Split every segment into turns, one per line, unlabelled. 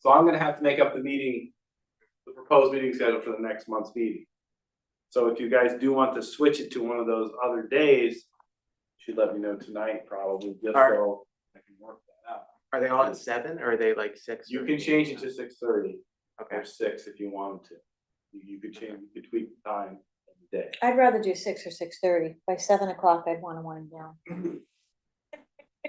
So I'm gonna have to make up the meeting, the proposed meeting schedule for the next month's meeting. So if you guys do want to switch it to one of those other days, you should let me know tonight probably, just
Alright.
so I can work that out.
Are they all at seven or are they like six?
You
or
can
eight?
change it to six thirty
Okay,
or six if you wanted to. You- You could change, you could tweak the time of the day.
I'd rather do six or six thirty. By seven o'clock, I'd wanna wind down.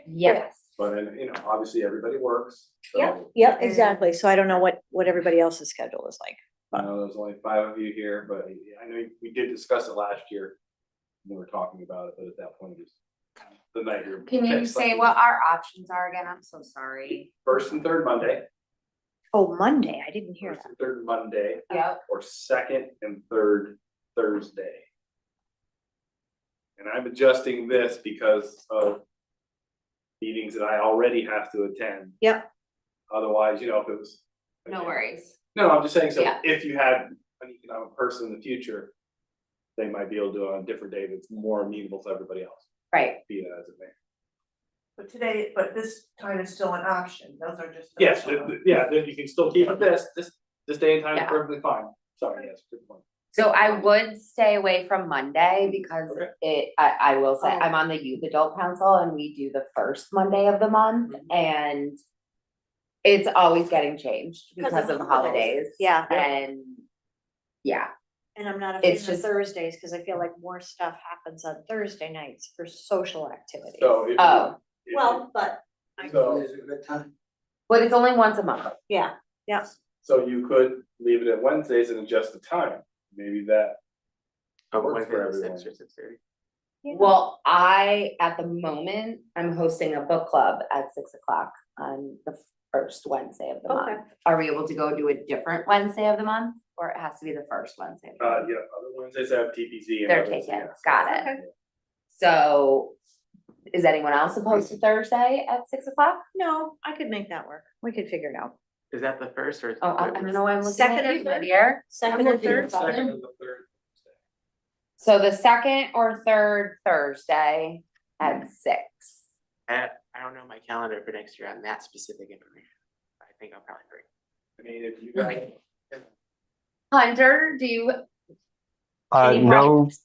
Yes.
But, and, you know, obviously, everybody works. so,
Yeah.
Yeah,
Mm.
exactly. So I don't know what, what everybody else's schedule is like.
I know there's only five of you here, but I know we did discuss it last year. when We were talking about it, but at that point, it was the night you're.
Can you say what our options are again? I'm so sorry.
First and third Monday,
Oh, Monday, I didn't hear
first
that.
and third Monday,
Yep.
or second and third Thursday. And I'm adjusting this because of meetings that I already have to attend.
Yep.
Otherwise, you know, if it was.
No worries.
No, I'm just saying, so
Yeah.
if you had an economic person in the future, they might be able to do it on a different day that's more amenable to everybody else,
Right.
be it as it may.
But today, but this time is still an option, those are just.
Yes,
optional.
th- th- yeah, then you can still keep it this, this, this day and time is
Yeah.
perfectly fine, sorry, yes, good point.
So I would stay away from Monday because
Okay.
it, I, I will say, I'm on the youth adult council and we do the first Monday of the month and it's always getting changed
Because
because
of
of
the
holidays.
Yeah. Yeah.
And, yeah,
And I'm not a
It's
fan of
just-
Thursdays, cause I feel like more stuff happens on Thursday nights for social activities.
So. if you-
oh,
if you-
Well, but,
So,
but it's only once a month.
yeah, yeah.
so you could leave it at Wednesdays and adjust the time, maybe that,
oh,
Works
one
for
thirty, six
everyone.
or six thirty.
Yeah.
Well, I, at the moment, I'm hosting a book club at six o'clock on the first Wednesday of the
Okay.
month. Are we able to go do a different Wednesday of the month, or it has to be the first Wednesday? of the
uh,
month?
yeah, other Wednesdays have TPZ. and
They're
others,
taken,
yes.
got it. So, is anyone else opposed to Thursday at six o'clock?
No, I could make that work. We could figure it out.
Is that the first or?
Oh, I I don't know why I'm looking
Second
at
and
you,
third?
Lydia.
Second
I'm
and
looking at
third,
something.
Second and the third.
So the second or third Thursday at six.
I, I don't know my calendar for next year on that specific information. I think I'll probably agree.
I mean, if you guys.
Hunter, do you?
Uh,
any
no,
problems?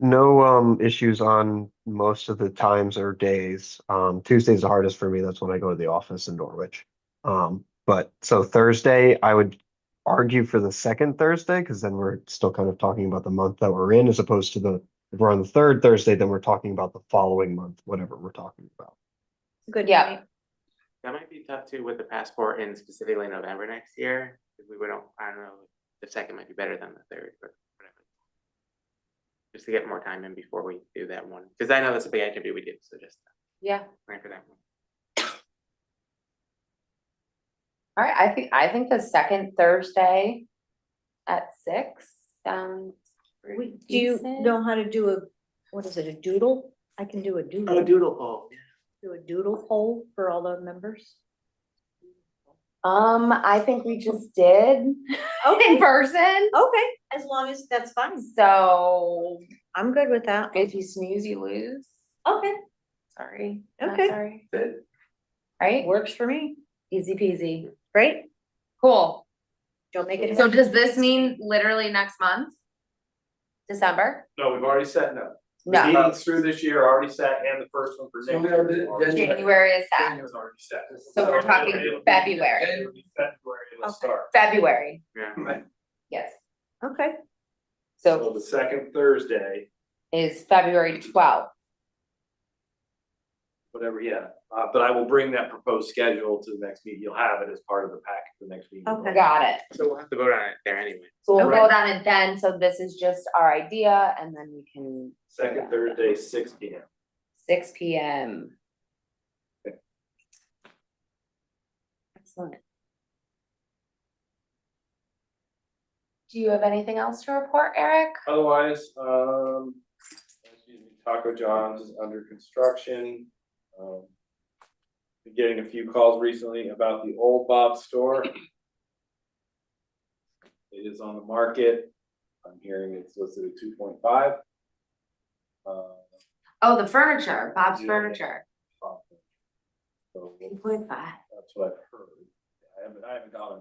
no, um, issues on most of the times or days. Um, Tuesday's the hardest for me. That's when I go to the office in Norwich. Um, but so Thursday, I would argue for the second Thursday, because then we're still kind of talking about the month that we're in, as opposed to the, if we're on the third Thursday, then we're talking about the following month, whatever we're talking about.
Good
Yeah.
night.
That might be tough too with the passport in specifically November next year. 'cause We wouldn't, I don't know, the second might be better than the third, but whatever. Just to get more time in before we do that one, because I know that's a big activity we did, so just
Yeah.
plan for that one.
All right, I think, I think the second Thursday at six um, sounds pretty
We, do you
decent.
know how to do a, what is it, a doodle? I can do a doodle,
doodle poll.
do a doodle poll for all the members.
Um, I think we just did in person,
Okay, as long as that's fine.
so
I'm good with that.
if you snooze, you lose,
Okay,
sorry. not
okay.
sorry.
Good.
Right,
Works for me.
easy peasy,
Great.
cool.
Don't make it.
So does this mean literally next month? December?
No, we've already set no. The
No,
Meetings through this year are already set and the first one for
So
next
we are
year. is
the-
already set.
January is that,
January's already set.
So we're talking
it'll be-
February.
it'll be February,
Okay.
let's start.
February,
Yeah.
yes,
Okay,
so
So the second Thursday,
is February twelfth,
whatever, yeah, uh, but I will bring that proposed schedule to the next meeting, you'll have it as part of the packet for the next meeting.
Okay.
got it.
So we'll have to vote on it there anyway.
So we'll
Okay.
vote on it then, so this is just our idea, and then we can,
Second Thursday, six P M.
six P M. Excellent. Do you have anything else to report, Eric?
Otherwise, um, excuse me, Taco John's is under construction. Um, Been getting a few calls recently about the old Bob store. It is on the market. I'm hearing it's listed at two point five. Uh,
Oh, the furniture, Bob's
Yeah.
furniture,
So
two point five.
that's what I've heard. I haven't, I haven't gone